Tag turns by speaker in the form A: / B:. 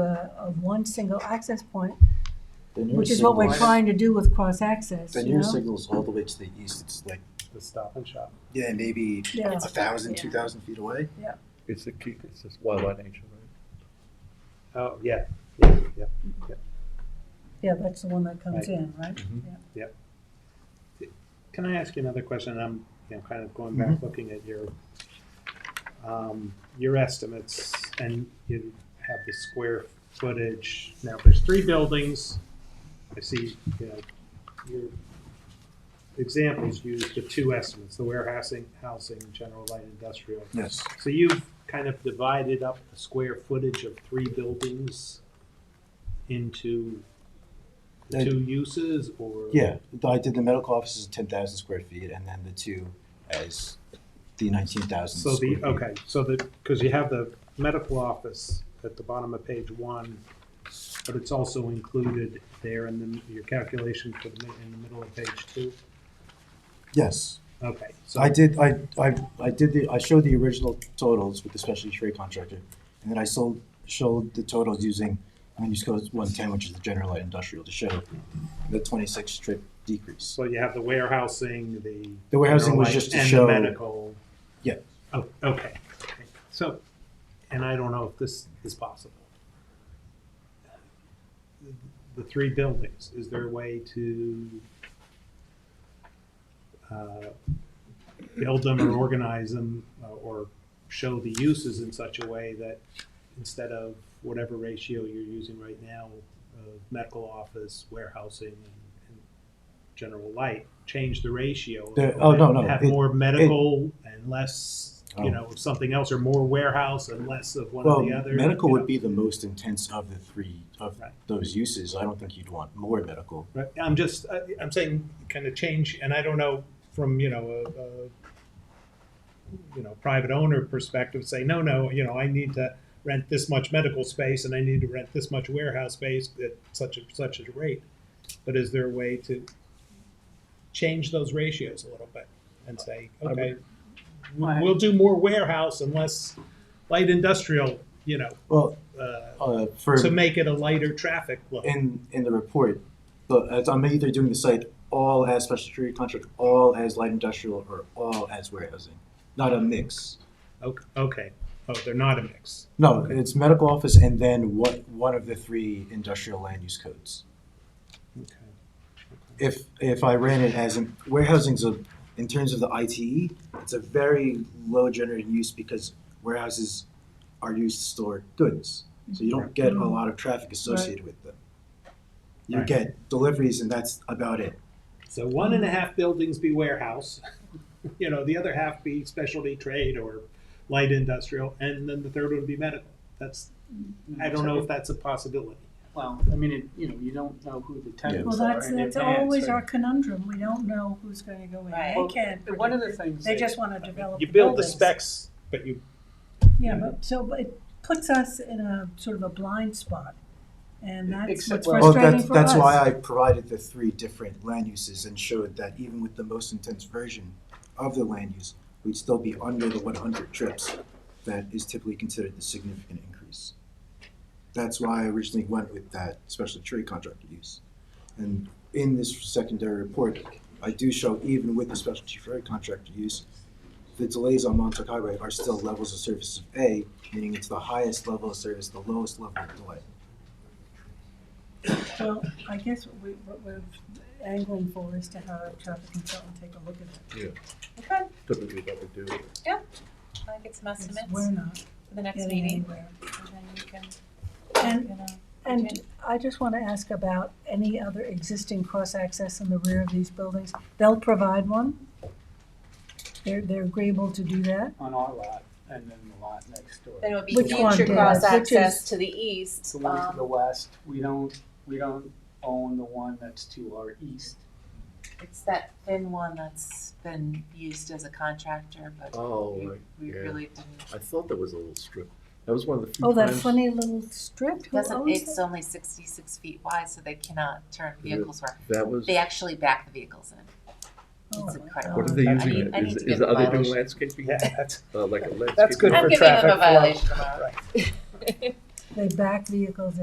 A: a, uh, of one single access point,
B: The new
A: which is what we're
B: signals-
A: trying to do with cross-access,
B: The
A: you
B: new
A: know?
B: signal's all the way to the east, it's like,
C: the stop and shop.
B: yeah, maybe
A: Yeah.
B: a thousand,
D: Yeah.
B: two thousand feet away.
E: It's a key, it's just wildlife nature, right?
C: Oh, yeah, yeah, yeah.
A: Yeah, that's the one that comes in, right?
C: Can I ask you another question? I'm, you know, kind of going back, looking at your, um, your estimates, and you have the square footage. Now, there's three buildings. I see, you know, your examples use the two estimates, the warehousing, housing, general light industrial.
B: Yes.
C: So you've kind of divided up the square footage of three buildings into the
B: Uh,
C: two uses, or?
B: Yeah, I did the medical offices ten thousand square feet, and then the two as the nineteen thousand.
C: So the, okay, so the, because you have the medical office at the bottom of page one, but it's also included there in the, your calculation for the, mi- in the middle of page two?
B: Yes.
C: Okay, so,
B: So I did, I, I, I did the, I showed the original totals with the specialty trade contractor, and then I sold, showed the totals using land use code one ten, which is the general light industrial, to show the twenty-six strip decrease.
C: so you have the warehousing, the.
B: The warehousing was just to show-
C: And the medical.
B: Yeah.
C: Oh, okay, okay. so, and I don't know if this is possible. The three buildings, is there a way to uh, build them or organize them uh, or show the uses in such a way that instead of whatever ratio you're using right now of medical office, warehousing, and and general light, change the ratio.
B: The- oh, no, no,
C: Have
B: it-
C: more medical and less,
B: Oh.
C: you know, of something else, or more warehouse and less of one
B: Well,
C: or the other.
B: medical
C: you
B: would
C: know.
B: be the most intense of the three, of
C: Right.
B: those uses, I don't think you'd want more medical.
C: Right, I'm just, I- I'm saying, kind of change, and I don't know from, you know, a, a, you know, private owner perspective, say, no, no, you know, I need to rent this much medical space and I need to rent this much warehouse space at such a, such a rate. But is there a way to change those ratios a little bit and say,
E: would-
C: okay, we'll we'll do more warehouse and less light industrial, you know,
B: Well,
C: uh,
B: uh, for.
C: to make it a lighter traffic flow?
B: in in the report, the, as I'm either doing the site all as special security contract, all as light industrial, or all as warehousing, not a mix.
C: Okay, okay, oh, they're not a mix.
B: No,
C: Okay.
B: it's medical office and then what one of the three industrial land use codes.
C: Okay.
B: If if I ran it as in, warehousing's a in terms of the ITE, it's a very low generated use because warehouses are used to store goods. So you don't get a lot of traffic associated with them. You
C: Right.
B: get deliveries and that's about it.
C: So one and a half buildings be warehouse, you know, the other half be specialty trade or light industrial, and then the third one be medical. That's, I don't know if that's a possibility.
F: Well, I mean, it, you know, you don't know who the
A: Well,
F: tenants are in
A: that's,
F: advance.
A: that's always
F: or-
A: our conundrum, we don't know who's gonna go in,
D: Right.
A: they can't
F: But One of
A: predict,
F: the things.
A: they
F: that-
A: just wanna develop
C: You
A: the
C: build the
A: buildings.
C: specs, but you,
A: Yeah, but, so, but it puts us in a sort of a blind spot, and that's what's
F: Except- well-
B: Well,
A: frustrating
B: that's,
A: for us.
B: that's why I provided the three different land uses and showed that even with the most intense version of the land use, we'd still be under the one hundred trips that is typically considered the significant increase. That's why I originally went with that special tree contractor use. And in this secondary report, I do show even with the specialty tree contractor use, the delays on Montauk Highway are still levels of service of A, meaning it's the highest level of service, the lowest level of delay.
A: Well, I guess what we, what we're angling for is to have a traffic consultant take a look at it,
D: Okay,
E: Typically what we do.
D: I get some estimates
A: because we're
D: for
A: not
D: the next
A: getting
D: meeting.
A: anywhere.
D: and then you can-
A: And
D: you know,
A: And I just want to ask about any other existing cross-access in the rear of these buildings. They'll provide one. They're, they're agreeable to do that.
F: On our lot and then the lot next door.
D: Then it would be
A: Which one,
D: future
A: Dan?
D: cross
A: Which is-
D: access to the east.
F: The one to
D: um,
F: the west, we don't, we don't own the one that's to our east.
D: It's that thin one that's been used as a contractor, but
E: Oh,
D: we,
E: right.
D: we
E: yeah.
D: really didn't.
E: I thought there was a little strip. That was one of the few
A: Oh, that
E: times-
A: funny little strip, who
D: Doesn't,
A: owns
D: it's
A: that?
D: only sixty-six feet wide, so they cannot turn
E: Yeah.
D: vehicles where,
E: That was,
D: they actually back the vehicles in.
A: Oh,
D: It's
A: my
D: incredible.
E: what are they
C: I
E: using
D: need-
E: it?
D: I need
E: Is,
D: to
E: is,
D: get
E: are they doing
D: mileage.
E: landscaping?
C: yeah, that's,
E: Uh, like a landscape?
C: that's good
D: I'm
C: for
D: giving them
C: traffic
D: a
C: flow.
D: violation tomorrow.
A: They back vehicles